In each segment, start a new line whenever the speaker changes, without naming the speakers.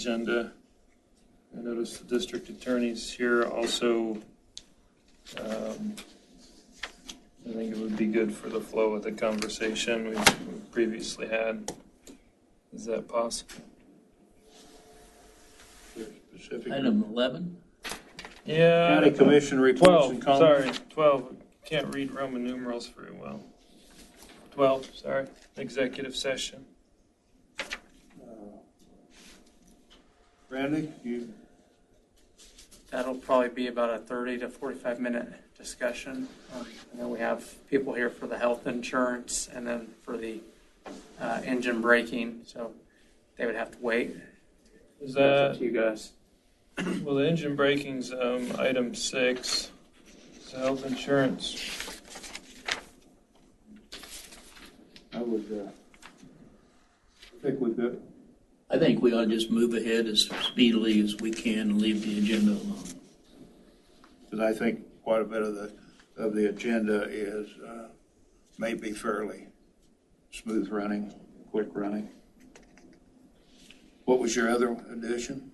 agenda. I noticed the district attorney's here also. um, I think it would be good for the flow of the conversation we've we've previously had. Is that possible?
Specific.
Item 11,
Yeah.
County Commission reports
Twelve,
and comments.
sorry, twelve, can't read Roman numerals very well. Twelve, sorry, executive session.
Uh, Randy, you,
That'll probably be about a 30 to 45 minute discussion. Um, And then we have people here for the health insurance and then for the uh, engine braking, so they would have to wait.
Is
That's up
that,
to You guys.
well, the engine braking's, um, item six, It's health insurance.
I would, uh, I think we could,
I think we ought to just move ahead as speedily as we can and leave the agenda alone.
because I think quite a bit of the, of the agenda is, uh, maybe fairly smooth running, quick running. What was your other addition?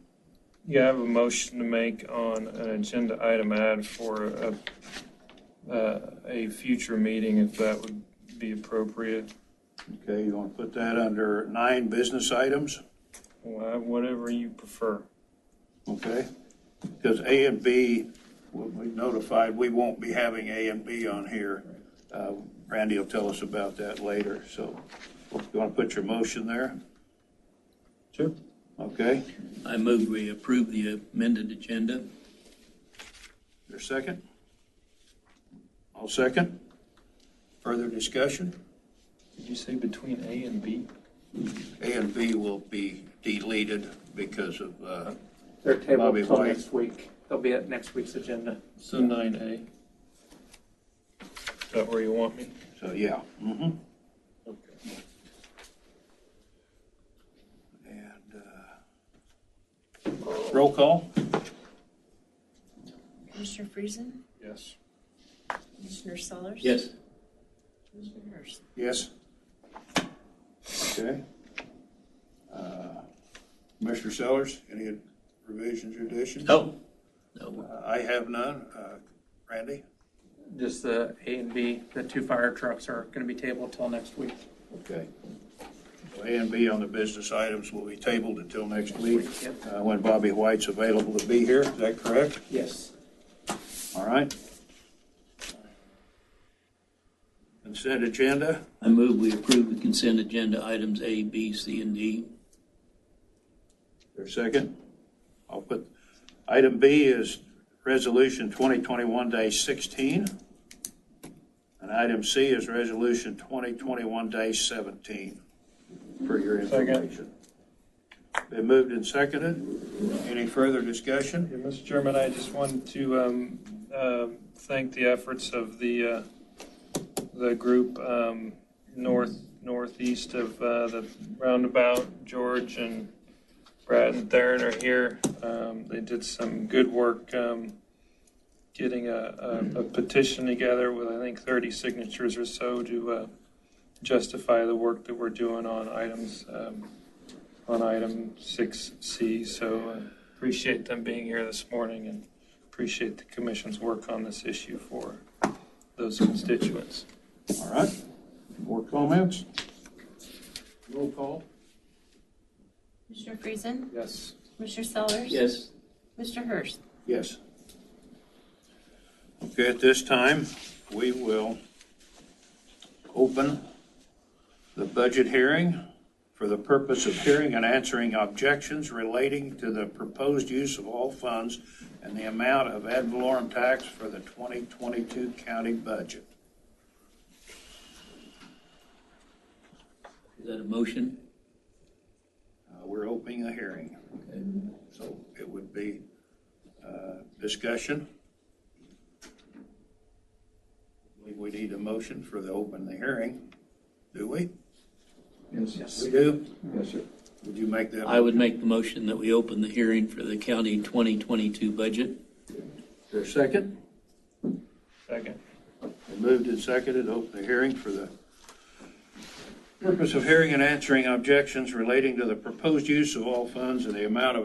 Yeah, I have a motion to make on an agenda item add for a, uh, a future meeting, if that would be appropriate.
Okay, you want to put that under nine business items?
Wha- Whatever you prefer.
Okay, because A and B, we'll be notified, we won't be having A and B on here. Uh, Randy will tell us about that later, so you want to put your motion there?
Sure.
Okay,
I move we approve the amended agenda.
your second? I'll second. Further discussion?
Did you say between A and B?
A and B will be deleted because of, uh,
They're tabled
Bobby
until
White.
next week. They'll be at next week's agenda.
So nine A. Is that where you want me?
so yeah. Mm-hmm.
Okay.
And uh, roll call?
Commissioner Friesen?
Yes.
Commissioner Sellers? Commissioner Hurst?
Yes. Okay. Uh, Commissioner Sellers, any revisions or additions?
No, no,
Uh, I have none. Uh, Randy?
Just the A and B, the two fire trucks are going to be tabled till next week.
Okay. So A and B on the business items will be tabled until next week,
Yep.
uh, when Bobby White's available to be here. Is that correct?
Yes.
All right. Consent agenda?
I move we approve the consent agenda items A, B, C, and D.
Your second? I'll put, item B is Resolution 2021-16. And item C is Resolution 2021-17, for your
Second.
information. Been moved and seconded. Any further discussion?
Yeah, Mr. Chairman, I just wanted to um, uh, thank the efforts of the, uh, the group um, north, northeast of uh, the roundabout. George and Brad and Theron are here. Um, They did some good work um, getting a a- a petition together with, I think, 30 signatures or so to uh, justify the work that we're doing on items, um, on item 6C. So uh, Appreciate them being here this morning and appreciate the commission's work on this issue for those constituents.
All right. More comments? Roll call?
Commissioner Friesen?
Yes.
Commissioner Sellers?
Yes.
Mr. Hurst?
Yes. Okay, at this time, we will open the budget hearing for the purpose of hearing and answering objections relating to the proposed use of all funds and the amount of ad valorem tax for the 2022 county budget.
Is that a motion?
Uh, We're opening the hearing,
Okay.
so it would be uh, discussion. We need a motion for the open the hearing, do we?
Yes.
We do? Yes, sir. Would you make that?
I would make the motion that we open the hearing for the county 2022 budget.
Your second?
Second.
Moved and seconded, open the hearing for the Purpose of hearing and answering objections relating to the proposed use of all funds and the amount of